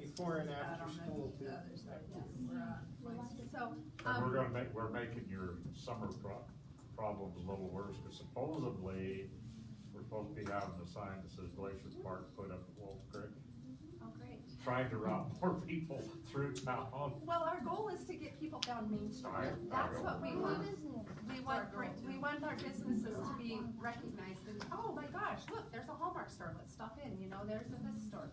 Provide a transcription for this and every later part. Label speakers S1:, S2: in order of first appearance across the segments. S1: before and after school too.
S2: So,
S3: And we're
S2: um,
S3: gonna make, we're making your summer pro- problems a little worse, cause supposedly, we're supposed to be having the sign that says Glacier Park put up at Wolf Creek,
S2: oh, great.
S3: trying to route more people through town.
S2: Well, our goal is to get people down Main Street.
S3: I- I
S2: That's
S3: know.
S2: what we want. We want, we want our businesses to be recognized and, oh my gosh, look, there's a Hallmark store, let's stop in, you know, there's a this store.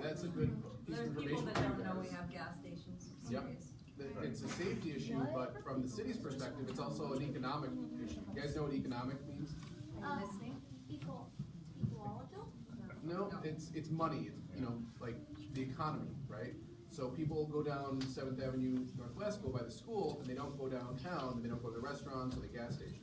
S2: So,
S4: that's a good piece of
S5: There's people
S4: information
S5: that
S4: for you
S5: don't know we
S4: guys.
S5: have gas stations.
S4: Yep.
S5: Serious.
S4: That It's a safety issue, but from the city's perspective, it's also an economic issue. You guys know what economic means?
S2: are you listening?
S6: Equal, equalable?
S4: No, it's, it's money, it's, you know, like the economy, right? So people go down Seventh Avenue Northwest, go by the school, and they don't go downtown, and they don't go to the restaurants or the gas station.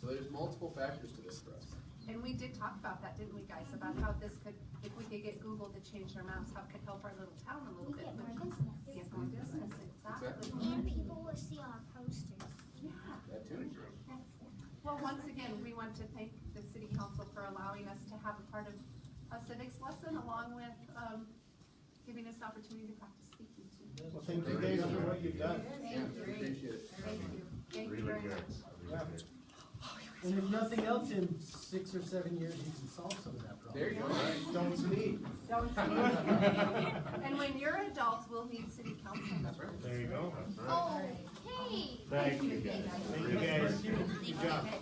S4: So there's multiple factors to this for us.
S2: And we did talk about that, didn't we, guys, about how this could, if we could get Google to change their maps, how it could help our little town a little
S6: We
S2: bit.
S6: get more
S2: with-
S6: business.
S2: Get more business, exactly.
S6: And people will see our posters.
S2: Yeah.
S4: That too.
S2: Well, once again, we want to thank the city council for allowing us to have a part of a civics lesson along with, um, giving us the opportunity to practice speaking too.
S1: Well, thank you guys for what you've done.
S4: Yeah, appreciate it.
S2: Thank you. Thank you
S3: Really
S2: very
S3: good.
S2: much.
S3: really
S1: Yeah.
S3: good.
S7: And if nothing else, in six or seven years, you can solve some of that problem.
S4: There you go. Don't sneeze.
S2: And when you're adults, we'll need city council
S4: That's
S2: members.
S4: right.
S3: There you go, that's right.
S6: Oh,
S2: Oh,
S6: Okay.
S3: Thank you guys.
S1: Thank you guys. Good job.
S4: Have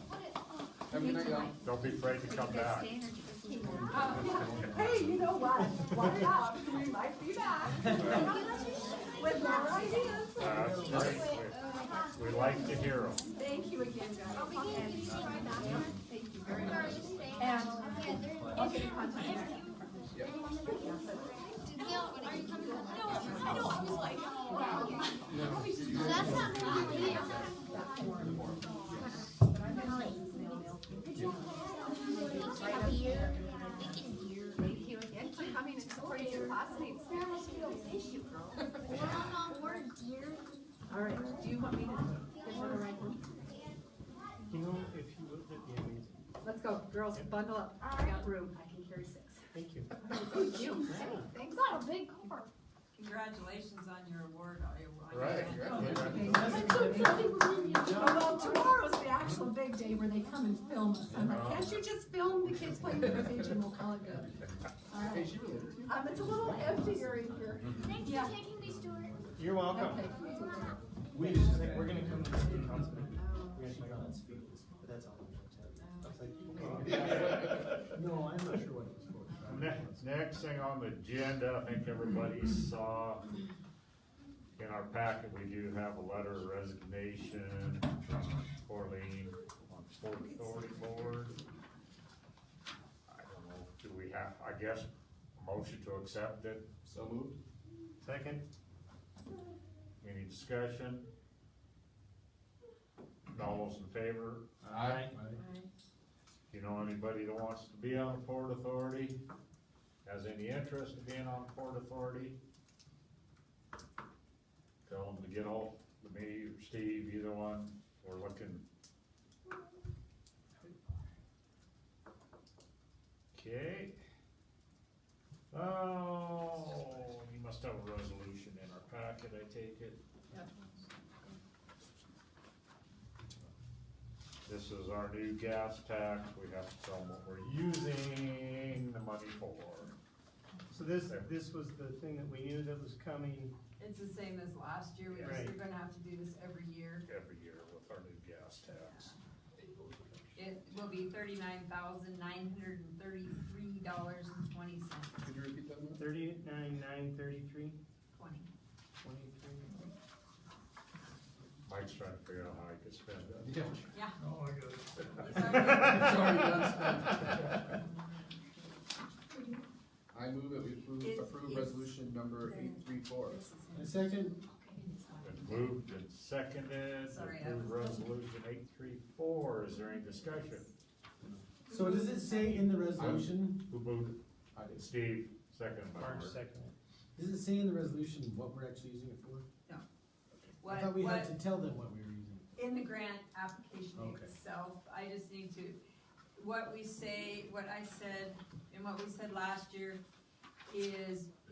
S4: a good night, y'all.
S3: Don't be afraid to come back.
S2: Hey, you know what? Watch out, we might be back with more ideas.
S3: That's great, we, we like to hear 'em.
S2: Thank you again, guys.
S6: Are we gonna get to see my bathroom?
S2: Thank you very much.
S6: Are you staying?
S2: And-
S6: Yeah, they're-
S2: Okay, contact back.
S6: No, are you coming? No, I know, I was like, That's not Molly.
S2: Thank you again for coming and supporting your classmates. All right, do you want me to give her a ride?
S1: You know, if you would, that'd be amazing.
S2: Let's go, girls, bundle up. I got room. I can carry six.
S1: Thank you.
S2: Thank you. Thanks.
S6: Not a big car.
S5: Congratulations on your award. on your- on your-
S4: Right, congratulations.
S2: Well, tomorrow's the actual big day where they come and film us. I'm like, can't you just film the kids playing with the page and we'll call it good? All
S4: Hey,
S2: right.
S4: she related to you?
S2: Um, it's a little emptier in here.
S6: Thanks
S2: Yeah.
S6: for taking me, Stuart.
S1: You're welcome.
S2: Okay.
S1: We just think we're gonna come to the city council. meeting. We're gonna try not to speak, but that's all I'm gonna tell you. I was like, okay.
S7: No, I'm not sure what it was for.
S3: Next, next thing on the agenda, I think everybody saw in our packet, we do have a letter of resignation from Corleen on Port Authority Board. I don't know, do we have, I guess, a motion to accept it?
S4: So moved.
S3: Second? Any discussion? All those in favor?
S4: Aye.
S3: You know anybody that wants to be on the Port Authority? Has any interest in being on the Port Authority? Tell them to get hold of me or Steve, either one, we're looking. Okay. Oh, you must have a resolution in our packet, I take it. This is our new gas tax, we have to tell them what we're using the money for.
S1: So this, this was the thing that we knew that was coming.
S5: It's the same as last year. We just,
S1: Right.
S5: you're gonna have to do this every year.
S3: every year with our new gas tax.
S5: It will be thirty-nine thousand nine hundred and thirty-three dollars and twenty cents.
S4: Could you repeat that one?
S1: Thirty-nine, nine, thirty-three,
S5: Twenty.
S1: twenty-three.
S3: Mike's trying to figure out how he could spend it.
S4: Yeah.
S5: Yeah.
S3: Oh, my
S5: It's already-
S4: It's already done, I move that we approve,
S5: It's-
S4: approve
S5: it's-
S4: resolution number eight three four.
S5: this is
S7: A
S5: in-
S7: second,
S3: Been moved and seconded, to
S5: Sorry, I
S3: approve
S5: was-
S3: resolution eight three four, is there any discussion?
S7: so does it say in the resolution,
S3: Who moved?
S4: I did.
S3: it? Steve, seconded by
S1: March
S3: Mark.
S1: second.
S7: does it say in the resolution what we're actually using it for? I
S5: What,
S7: thought we had
S5: what,
S7: to tell them what we were using. it
S5: in the grant application
S7: Okay.
S5: itself, I just need to, what we say, what I said, and what we said last year is